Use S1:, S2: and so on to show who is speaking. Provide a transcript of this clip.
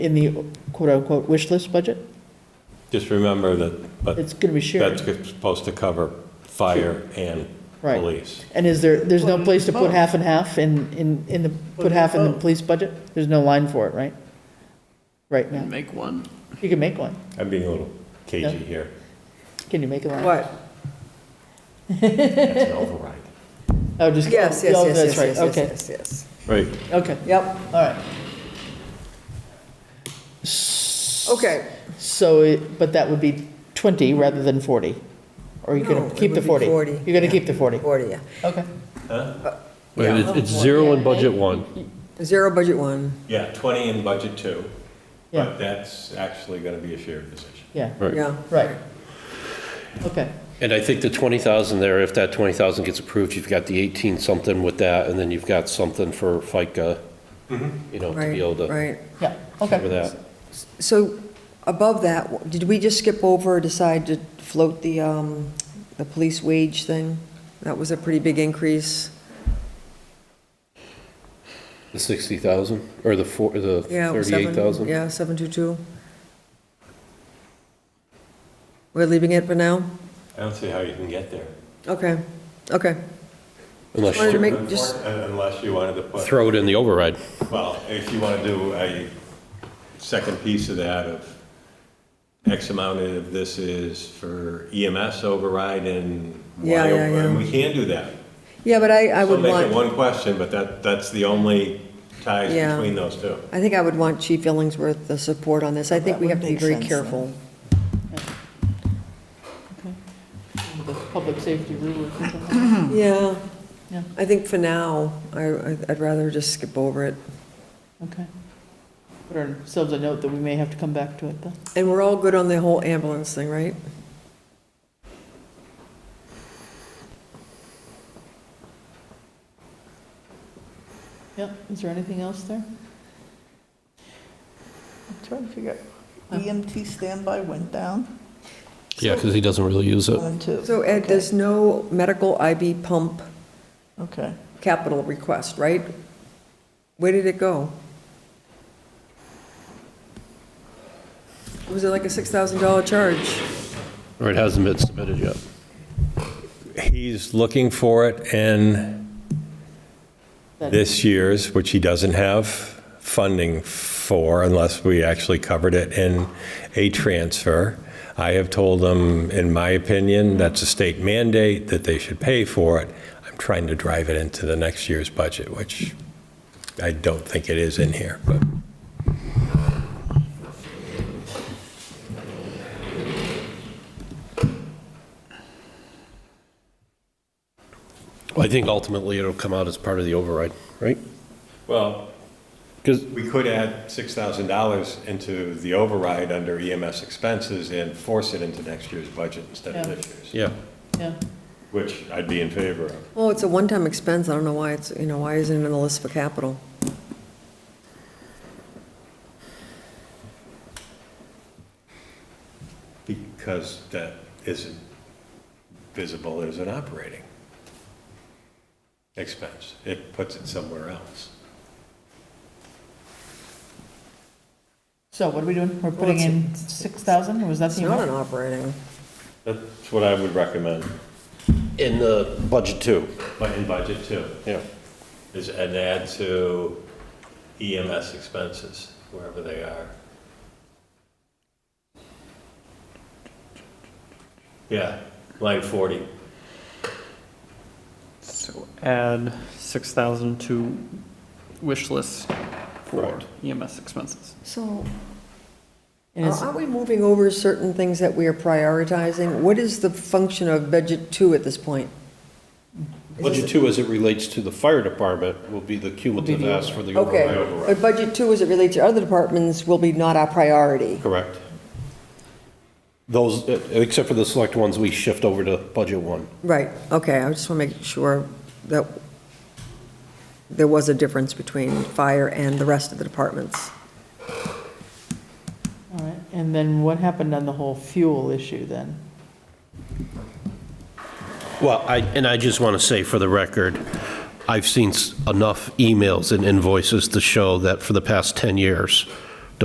S1: in the quote-unquote wish list budget?
S2: Just remember that, but
S1: It's going to be
S2: that's
S1: shared,
S2: supposed to cover fire and
S1: right?
S2: police.
S1: And is there, there's no
S3: Well,
S1: place to put
S3: both.
S1: half and half in, in, in the, put
S3: Put
S1: half in the
S3: both.
S1: police budget? There's no line for it, right? Right now,
S3: and make one.
S4: Mm-hmm.
S1: you can make one.
S2: I'm being a little cagey here.
S1: Can you make a line?
S4: What?
S2: That's an override.
S1: Oh, just.
S4: Yes,
S1: oh,
S4: yes,
S1: that's
S4: yes, yes,
S1: right.
S4: yes, yes, yes, yes.
S2: Right.
S1: Okay, okay,
S4: Yep,
S1: all right.
S4: okay.
S1: So, it- but that would be 20 rather than 40? Or you're
S4: No,
S1: going to
S4: it
S1: keep the
S4: would
S1: 40?
S4: be 40,
S1: You're going to keep the 40?
S4: Forty, yeah.
S1: Okay.
S5: Wait, it's, it's zero in budget one.
S4: Zero budget one,
S2: Yeah, 20 in budget two,
S1: Yeah,
S2: but that's actually going to be a shared decision.
S1: yeah,
S4: yeah.
S1: right. Okay,
S5: And I think the 20,000 there, if that 20,000 gets approved, you've got the 18 something with that, and then you've got something for FICA, you know, to
S4: Right,
S5: be able to
S4: Right.
S1: yeah,
S5: cover
S1: okay.
S5: that.
S4: So above that, did we just skip over, decide to float the, um, the police wage thing? That was a pretty big increase.
S5: The 60,000, or the four, the
S4: Yeah, it was seven-
S5: 38,000?
S4: Yeah, seven two two. We're leaving it for now?
S2: I don't see how you can get there.
S4: Okay, okay.
S5: Unless
S4: Wanted to
S5: you
S4: make just,
S2: Unless you wanted to put,
S5: throw it in the override.
S2: well, if you want to do a second piece of that of X amount of this is for EMS override and
S4: Yeah,
S2: Y
S4: yeah,
S2: override. And
S4: yeah.
S2: we can do that.
S4: yeah, but I, I
S2: Still
S4: would
S2: make it one
S4: want,
S2: question, but that, that's the only ties
S4: Yeah.
S2: between those two.
S4: I think I would want Chief Illingsworth the support on this. I think
S1: Oh, That
S4: we
S1: would
S4: have to be
S1: make
S4: very
S1: sense,
S4: careful.
S1: The public safety rule. or something.
S4: Yeah,
S1: Yeah.
S4: I think for now, I, I'd rather just skip over it.
S1: Okay. Put ourselves a note that we may have to come back to it, though.
S4: And we're all good on the whole ambulance thing, right?
S1: Yep, is there anything else there?
S3: I'm trying to figure out, EMT standby went down,
S5: Yeah, because he doesn't really use it.
S3: one, two.
S4: So Ed, there's no medical IV pump
S3: Okay,
S4: capital request, right? Where did it go? Was it like a $6,000 charge?
S5: Or it hasn't been submitted yet.
S2: He's looking for it in this year's, which he doesn't have funding for unless we actually covered it in a transfer. I have told him, in my opinion, that's a state mandate that they should pay for it. I'm trying to drive it into the next year's budget, which I don't think it is in here, but.
S5: Well, I think ultimately it'll come out as part of the override, right?
S2: Well,
S5: Because,
S2: We could add $6,000 into the override under EMS expenses and force it into next year's budget instead of
S1: Yeah.
S2: this year's,
S5: yeah,
S1: Yeah,
S2: which I'd be in favor of.
S4: Well, it's a one-time expense, I don't know why it's, you know, why isn't it in the list for capital?
S2: Because that isn't visible as an operating expense. It puts it somewhere else.
S1: so what are we doing? We're putting
S4: it's-
S1: in 6,000, was that
S4: It's
S1: the
S4: not an
S1: amount?
S4: operating.
S2: That's what I would recommend,
S5: in the budget too,
S2: but in budget too,
S5: yeah.
S2: is an add to EMS expenses, wherever they are. Yeah, line 40.
S6: So add six thousand to wish list for
S2: Correct.
S6: EMS expenses.
S4: So
S1: And it's-
S4: aren't we moving over certain things that we are prioritizing? What is the function of budget two at this point?
S5: Budget two, as it relates to the fire department, will be the cumulative ask for the
S4: Okay,
S5: override.
S4: but budget two, as it relates to other departments, will be not our priority.
S5: Correct. Those, uh, except for the select ones, we shift over to budget one.
S4: Right, okay, I just want to make sure that there was a difference between fire and the rest of the departments.
S1: all right. And then what happened on the whole fuel issue then?
S5: Well, I, and I just want to say for the record, I've seen s- enough emails and invoices to show that for the past 10 years,